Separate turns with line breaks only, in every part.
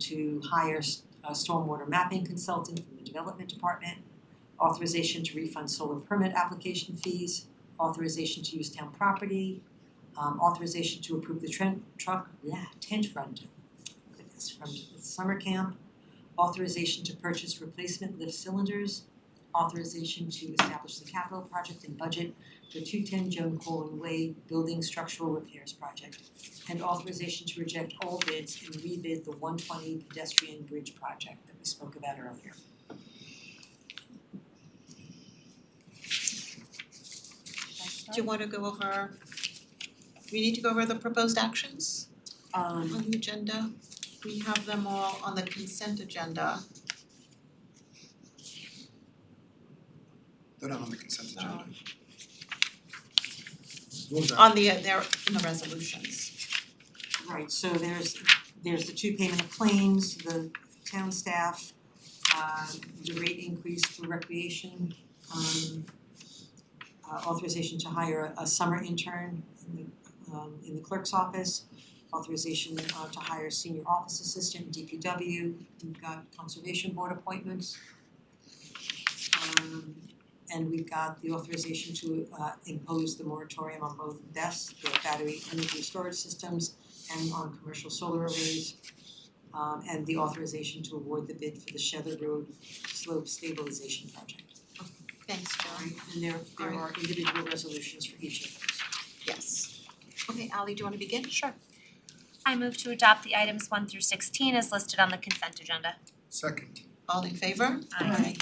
to hire s- a stormwater mapping consultant from the development department, authorization to refund solar permit application fees, authorization to use town property, um, authorization to approve the trend, truck, yeah, tent fund, goodness, from the summer camp, authorization to purchase replacement lift cylinders, authorization to establish the capital project and budget for two ten Joan Colwyn Way Building Structural Repairs Project, and authorization to reject all bids and rebid the one twenty pedestrian bridge project that we spoke about earlier.
Do you wanna go over, we need to go over the proposed actions
Um,
on the agenda? We have them all on the consent agenda,
They're not on the consent agenda.
No.
What was that?
on the, they're in the resolutions.
Right, so there's there's the two payment of claims, the town staff, uh the rate increase for recreation, um uh, authorization to hire a a summer intern in the um in the clerk's office, authorization uh to hire senior office assistant, DPW, we've got conservation board appointments. Um and we've got the authorization to uh impose the moratorium on both BES, the battery energy storage systems, and on commercial solar arrays. Um and the authorization to award the bid for the Shether Road Slope Stabilization Project.
Thanks, Joan.
Alright, and there there are individual resolutions for each of those.
Yes. Okay, Ally, do you wanna begin? Sure.
I move to adopt the items one through sixteen as listed on the consent agenda.
Second,
All in favor?
Aye.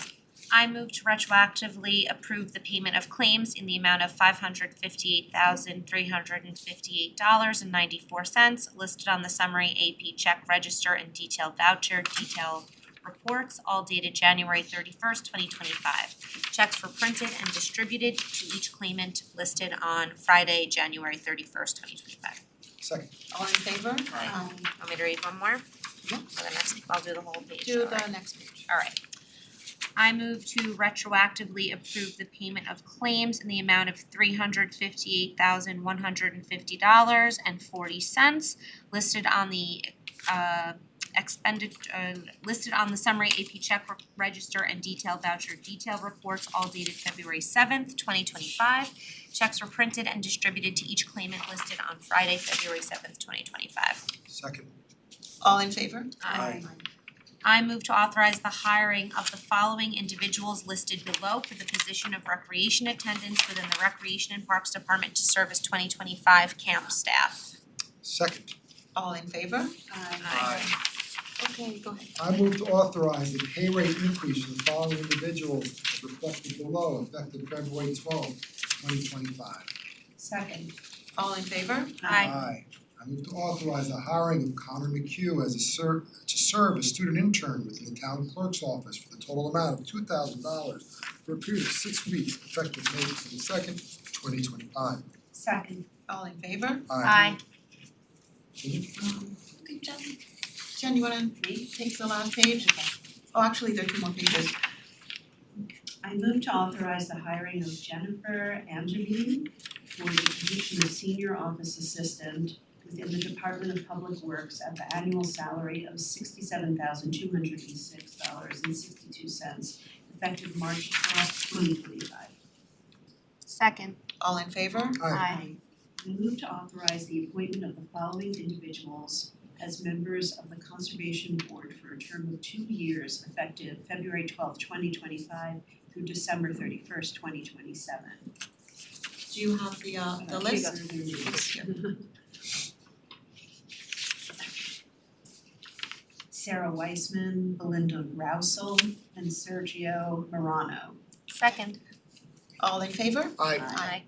I move to retroactively approve the payment of claims in the amount of five hundred fifty-eight thousand three hundred and fifty-eight dollars and ninety-four cents listed on the summary AP check register and detailed voucher detail reports, all dated January thirty-first, twenty twenty-five. Checks were printed and distributed to each claimant listed on Friday, January thirty-first, twenty twenty-five.
second,
All in favor?
Aye.
Um,
Want me to read one more?
Yeah.
For the next, I'll do the whole page,
do
alright.
the next page.
Alright. I move to retroactively approve the payment of claims in the amount of three hundred fifty-eight thousand one hundred and fifty dollars and forty cents listed on the uh expended uh listed on the summary AP check re- register and detailed voucher detail reports all dated February seventh, twenty twenty-five. Checks were printed and distributed to each claimant listed on Friday, February seventh, twenty twenty-five.
second,
All in favor?
Aye.
I move to authorize the hiring of the following individuals listed below for the position of recreation attendants within the Recreation and Parks Department to serve as twenty twenty-five camp staff.
second.
All in favor?
Aye.
Okay, go ahead.
I move to authorize the pay rate increase for the following individuals as reflected below, effective February twelfth, twenty twenty-five.
Second. All in favor?
Aye.
I move to authorize the hiring of Connor McHugh as a ser- to serve as student intern within the town clerk's office for the total amount of two thousand dollars for a period of six weeks, effective May twenty-second, twenty twenty-five.
Uh,
Second.
All in favor?
Aye.
Can you-
Okay, Jen. Jen, you wanna take the last page? Okay. Oh, actually, there are two more pages.
I move to authorize the hiring of Jennifer Angeline for the position of senior office assistant within the Department of Public Works at the annual salary of sixty-seven thousand two hundred and six dollars and sixty-two cents effective March twelfth, twenty twenty-five.
Second.
All in favor?
Aye.
I move to authorize the appointment of the following individuals as members of the Conservation Board for a term of two years effective February twelfth, twenty twenty-five through December thirty-first, twenty twenty-seven.
Do you have the uh the list? It's here.
Sarah Weissman, Belinda Rousel, and Sergio Morano.
Second.
All in favor?
Aye.
Aye.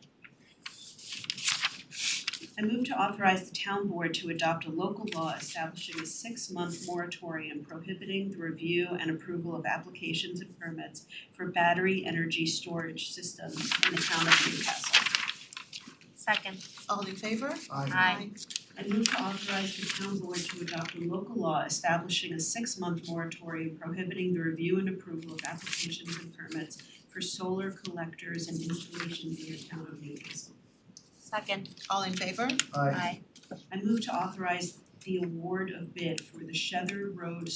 I move to authorize the town board to adopt a local law establishing a six-month moratorium prohibiting the review and approval of applications and permits for battery energy storage systems in the town of Newcastle.
Second.
All in favor?
Aye.
Aye.
I move to authorize the town board to adopt a local law establishing a six-month moratorium prohibiting the review and approval of applications and permits for solar collectors and installations in the town of Newcastle.
Second.
All in favor?
Aye.
Aye.
I move to authorize the award of bid for the Shether Road